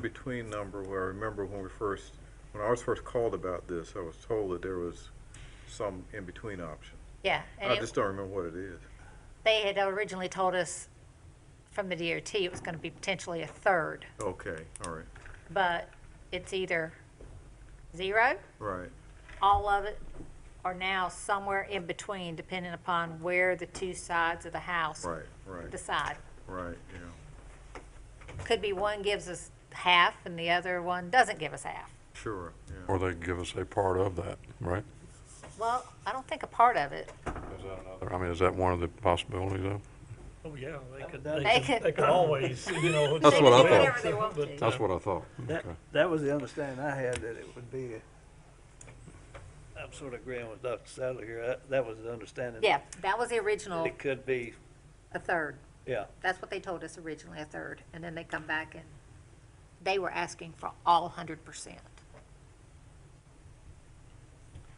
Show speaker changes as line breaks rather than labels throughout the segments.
in-between number where I remember when we first, when I was first called about this, I was told that there was some in-between option.
Yeah,
Oh,
and
I
it-
just don't remember what it is.
they had originally told us from the DOT it was going to be potentially a third,
Okay, all right,
but it's either zero,
right,
all of it, or now somewhere in between, depending upon where the two sides of the house
right, right,
decide.
right, yeah,
Could be one gives us half and the other one doesn't give us half.
sure, yeah.
Or they give us a part of that, right?
Well, I don't think a part of it.
Is that another? I mean, is that one of the possibilities though?
Oh, yeah, they could,
They
they
could-
could, they could always, you know.
That's
They
what I
can do
thought.
whatever they want to.
That's what I thought.
That,
Okay.
that was the understanding I had, that it would be, a- I'm sort of agreeing with Dr. Sadler here, that, that was the understanding.
Yeah, that was the original,
It could be,
a third.
yeah,
That's what they told us originally, a third, and then they come back and they were asking for all hundred percent.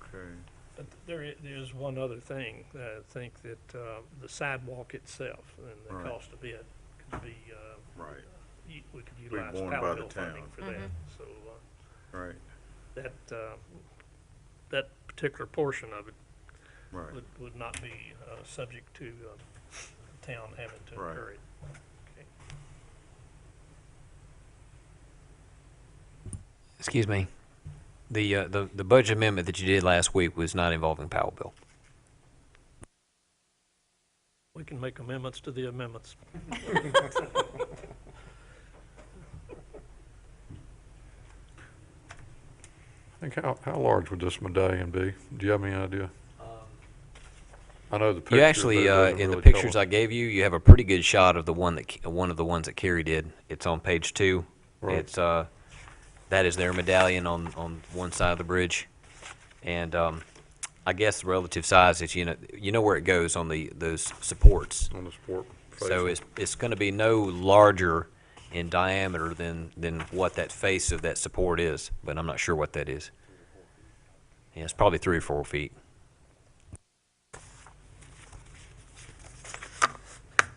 Okay,
But There i- there is one other thing, that I think that uh, the sidewalk itself and
Right.
the cost of it could be, uh,
right,
u- we could utilize
borne by
Powell
the
Hill funding
town.
for that. So uh,
right,
that, uh, that particular portion of it
right,
would, would not be uh, subject to uh, the town having to
Right.
incur it. Okay.
Excuse me. The, uh, the, the budget amendment that you did last week was not involving Powell bill.
We can make amendments to the amendments.
I think how, how large would this medallion be? Do you have any idea?
um,
I know the picture.
You actually, uh, in the pictures I gave you, you have a pretty good shot of the one that, Ke- one of the ones that Kerry did. It's on page two.
Right.
It's, uh, that is their medallion on, on one side of the bridge. And, um, I guess the relative size is, you know, you know where it goes on the, those supports.
On the sport.
So it's, it's gonna be no larger in diameter than, than what that face of that support is, but I'm not sure what that is. Yeah, it's probably three or four feet.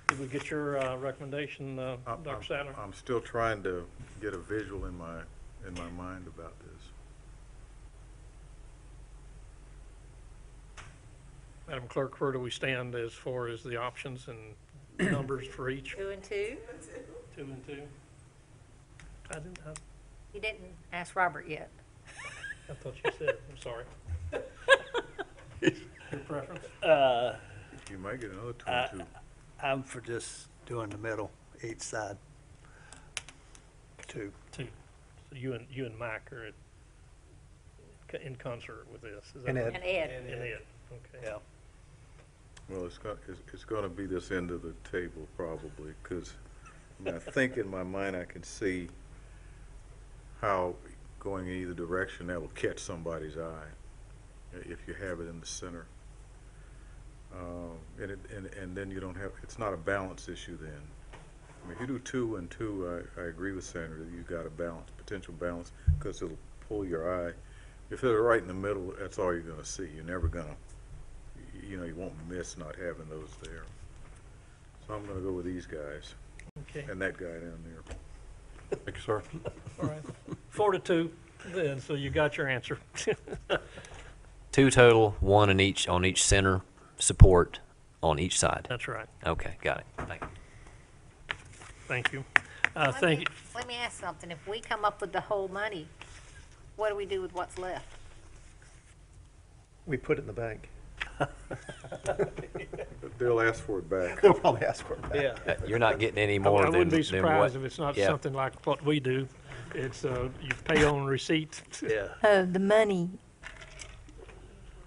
Did we get your uh, recommendation, uh,
I'm-
Dr. Sadler?
I'm still trying to get a visual in my, in my mind about this.
Madam Clerk, where do we stand as far as the options and numbers for each?
Two and two?
Two and two? I didn't, I,
You didn't ask Robert yet.
I thought you said, I'm sorry. Your preference?
uh,
You might get another
I-
twenty-two.
I'm for just doing the middle, each side. Two,
Two. So you and, you and Mike are at- co- in concert with this, is that?
And
right?
Ed.
And Ed,
And Ed, okay.
yeah.
Well, it's gonna, it's, it's gonna be this end of the table probably, because I mean, I think in my mind I can see how going in either direction that will catch somebody's eye, i- if you have it in the center. Um, and it, and, and then you don't have, it's not a balance issue then. I mean, if you do two and two, I, I agree with Sandra, that you've got a balance, potential balance, because it'll pull your eye. If they're right in the middle, that's all you're gonna see, you're never gonna y- you know, you won't miss not having those there. So I'm gonna go with these guys
Okay,
and that guy down there.
Thank you, sir.
all right. Four to two, then, so you got your answer.
Two total, one in each, on each center support on each side.
That's right.
Okay, got it. Thank you.
Thank you. Uh,
Let
thank
me-
you.
Let me ask something. If we come up with the whole money, what do we do with what's left?
We put it in the bank.
They'll ask for it back.
They'll probably ask for it back.
Yeah,
Uh, You're not getting any
I
more
I
than,
wouldn't be
than what-
surprised if it's not
yeah.
something like what we do. It's, uh, you pay on receipt.
yeah.
Oh, the money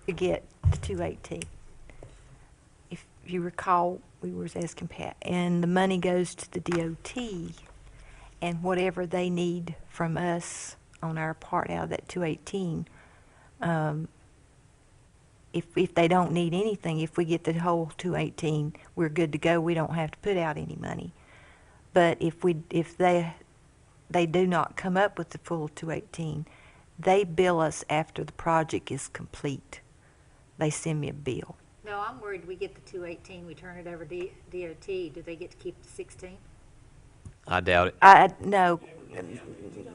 to get the two eighteen. If you recall, we was asking Pat, and the money goes to the DOT and whatever they need from us on our part out of that two eighteen. um, If, if they don't need anything, if we get the whole two eighteen, we're good to go. We don't have to put out any money. But if we, if they, they do not come up with the full two eighteen, they bill us after the project is complete. They send me a bill.
No, I'm worried we get the two eighteen, we turn it over to DOT. Do they get to keep the sixteen?
I doubt it.
I, I- no,
and